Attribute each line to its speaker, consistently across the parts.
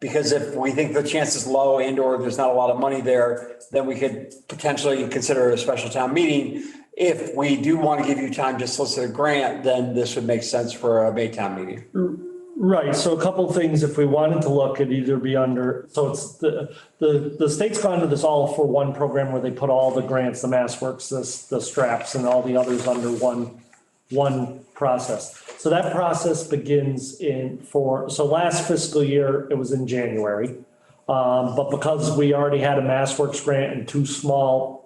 Speaker 1: Because if we think the chance is low and or there's not a lot of money there, then we could potentially consider a special town meeting. If we do want to give you time to solicit a grant, then this would make sense for a May town meeting.
Speaker 2: Right, so a couple things, if we wanted to look, it'd either be under, so it's the, the, the state's gone to this all for one program where they put all the grants, the Mass Works, this, the straps and all the others under one, one process. So that process begins in for, so last fiscal year, it was in January. Um, but because we already had a Mass Works grant and two small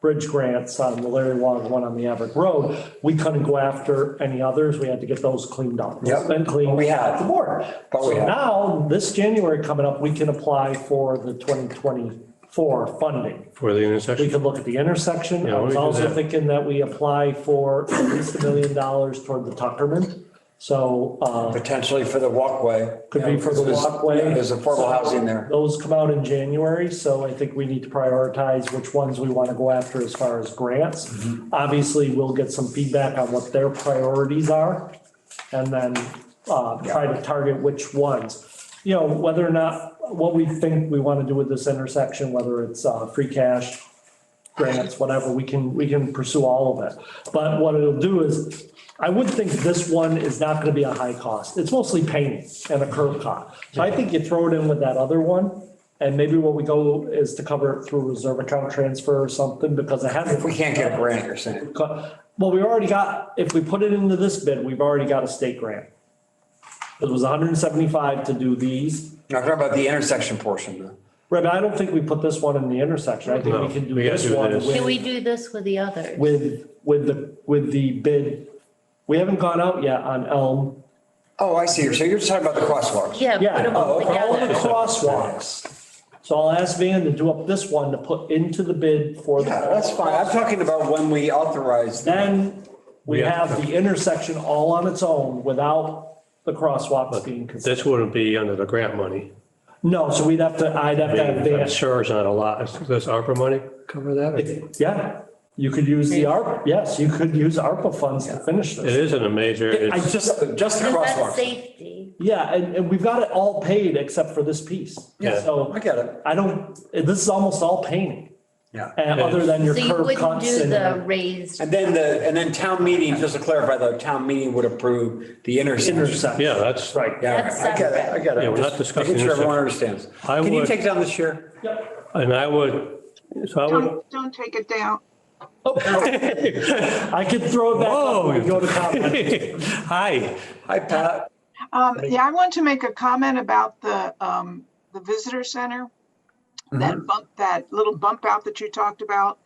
Speaker 2: bridge grants on the Larry Long, one on the Everett Road, we couldn't go after any others. We had to get those cleaned up.
Speaker 1: Yep.
Speaker 2: And cleaned.
Speaker 1: We have.
Speaker 2: The board.
Speaker 1: But we
Speaker 2: So
Speaker 1: have.
Speaker 2: now, this January coming up, we can apply for the 2024 funding.
Speaker 3: For the
Speaker 2: We
Speaker 3: intersection?
Speaker 2: could look at the intersection. I
Speaker 3: Yeah, why don't we
Speaker 2: was
Speaker 3: do
Speaker 2: also
Speaker 3: that?
Speaker 2: thinking that we apply for at least a million dollars toward the Tuckerman. So uh,
Speaker 1: Potentially for the walkway.
Speaker 2: Could be for the
Speaker 1: There's-
Speaker 2: walkway.
Speaker 1: yeah, There's affordable housing there.
Speaker 2: those come out in January, so I think we need to prioritize which ones we want to go after as far as grants. Obviously, we'll get some feedback on what their priorities are and then uh, try to target which ones. You know, whether or not, what we think we want to do with this intersection, whether it's uh, free cash, grants, whatever, we can, we can pursue all of it. But what it'll do is, I would think this one is not gonna be a high cost. It's mostly painting and a curb cut. So I think you throw it in with that other one, and maybe what we go is to cover it through reserve account transfer or something, because it hasn't.
Speaker 1: If we can't get a grant, you're saying.
Speaker 2: Well, we already got, if we put it into this bid, we've already got a state grant. It was hundred and seventy-five to do these.
Speaker 1: No, I'm talking about the intersection portion. though.
Speaker 2: Right, but I don't think we put this one in the intersection. I think we
Speaker 3: No,
Speaker 2: can do
Speaker 3: we gotta
Speaker 2: this
Speaker 3: do
Speaker 2: one
Speaker 3: this.
Speaker 2: with-
Speaker 4: Can we do this with the others?
Speaker 2: with, with the, with the bid. We haven't gone out yet on Elm.
Speaker 1: Oh, I see. So you're just talking about the crosswalks.
Speaker 4: Yeah, put
Speaker 2: Yeah,
Speaker 4: them all
Speaker 1: Oh,
Speaker 2: all the
Speaker 4: together.
Speaker 2: crosswalks. So I'll ask Van to do up this one to put into the bid for the.
Speaker 1: Yeah, that's fine. I'm talking about when we authorize.
Speaker 2: Then we
Speaker 3: We
Speaker 2: have
Speaker 3: have-
Speaker 2: the intersection all on its own without the crosswalks being considered.
Speaker 3: This wouldn't be under the grant money.
Speaker 2: No, so we'd have to, I'd have to have
Speaker 3: I'm
Speaker 2: Van.
Speaker 3: sure it's not a lot. Is- Does ARPA money cover that? It
Speaker 2: Yeah, you could use the ARP, yes, you could use ARPA funds to finish this.
Speaker 3: isn't a major,
Speaker 2: I just,
Speaker 3: it's,
Speaker 1: Just the
Speaker 4: Because
Speaker 1: crosswalks.
Speaker 4: that's safety.
Speaker 2: yeah, and, and we've got it all paid except for this piece.
Speaker 3: Yeah.
Speaker 2: So.
Speaker 1: I get it.
Speaker 2: I don't, this is almost all painting,
Speaker 1: Yeah.
Speaker 2: and other than your
Speaker 4: So you
Speaker 2: curb
Speaker 4: wouldn't
Speaker 2: cuts
Speaker 4: do the
Speaker 2: and
Speaker 4: raised,
Speaker 1: And then the, and then town meeting, just to clarify though, town meeting would approve the intersection.
Speaker 2: intersection.
Speaker 3: yeah, that's,
Speaker 2: Right.
Speaker 1: Yeah,
Speaker 4: That's
Speaker 1: I get it, I get it.
Speaker 3: Yeah, we're not
Speaker 1: Just
Speaker 3: discussing
Speaker 1: Making sure everyone
Speaker 3: intersection.
Speaker 1: understands.
Speaker 3: I
Speaker 1: Can you
Speaker 3: would-
Speaker 1: take down the chair?
Speaker 3: and I would, so I would,
Speaker 5: Don't, don't take it down.
Speaker 2: Oh, I could throw it back up
Speaker 3: whoa.
Speaker 2: and go to comment.
Speaker 3: Hi,
Speaker 1: Hi, Pat.
Speaker 5: Um, yeah, I want to make a comment about the, um, the visitor center. That bump, that little bump out that you talked about.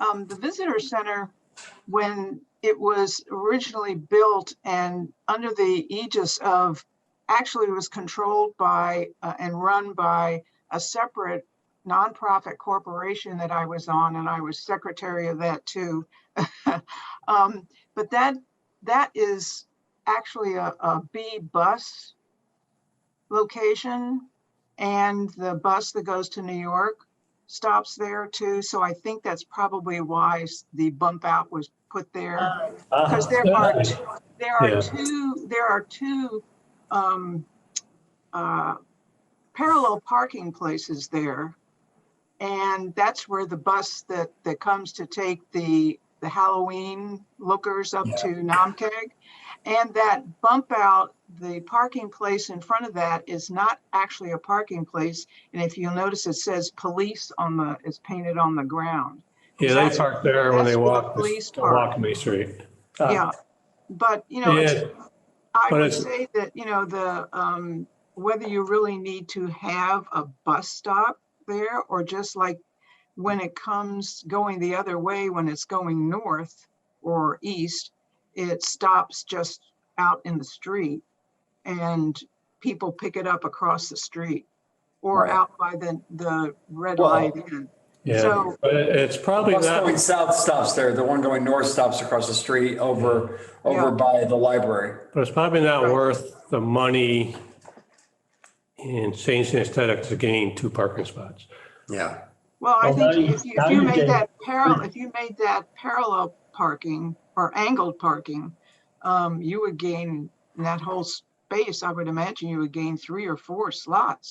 Speaker 5: Um, the visitor center, when it was originally built and under the aegis of, actually was controlled by, uh, and run by a separate nonprofit corporation that I was on, and I was secretary of that too. Um, but that, that is actually a, a B bus location. And the bus that goes to New York stops there too. So I think that's probably why s- the bump out was put there. Because there are, two- there
Speaker 3: Uh, Yeah.
Speaker 5: are two, there are two um, uh, parallel parking places there. And that's where the bus that, that comes to take the, the Halloween lookers up to Namkeg. And that bump out, the parking place in front of that is not actually a parking place. And if you'll notice, it says police on the, it's painted on the ground.
Speaker 3: yeah, they park there when they
Speaker 5: That's where
Speaker 3: walk,
Speaker 5: police
Speaker 3: walk
Speaker 5: park.
Speaker 3: me street. Uh-huh.
Speaker 2: Uh,
Speaker 5: Yeah. But, you know, it's-
Speaker 3: Yeah,
Speaker 5: I
Speaker 3: but
Speaker 5: would
Speaker 3: it's-
Speaker 5: say that, you know, the, um, whether you really need to have a bus stop there or just like when it comes going the other way, when it's going north or east, it stops just out in the street and people pick it up across the street or
Speaker 1: Right.
Speaker 5: out by the, the red
Speaker 1: Well,
Speaker 5: light. inn.
Speaker 3: yeah,
Speaker 5: So-
Speaker 3: but it- it's probably
Speaker 1: Bus
Speaker 3: not,
Speaker 1: going south stops there. The one going north stops across the street over, over
Speaker 5: Yeah.
Speaker 1: by the library.
Speaker 3: but it's probably not
Speaker 5: Right.
Speaker 3: worth the money in changing aesthetic to gain two parking spots.
Speaker 1: Yeah.
Speaker 5: Well, I
Speaker 2: Well, now
Speaker 5: think
Speaker 2: you-
Speaker 5: if you,
Speaker 2: now
Speaker 5: if you
Speaker 2: you
Speaker 5: made
Speaker 2: can-
Speaker 5: that parallel, if you made that parallel parking or angled parking, um, you would gain in that whole s- space, I would imagine you would gain three or four slots.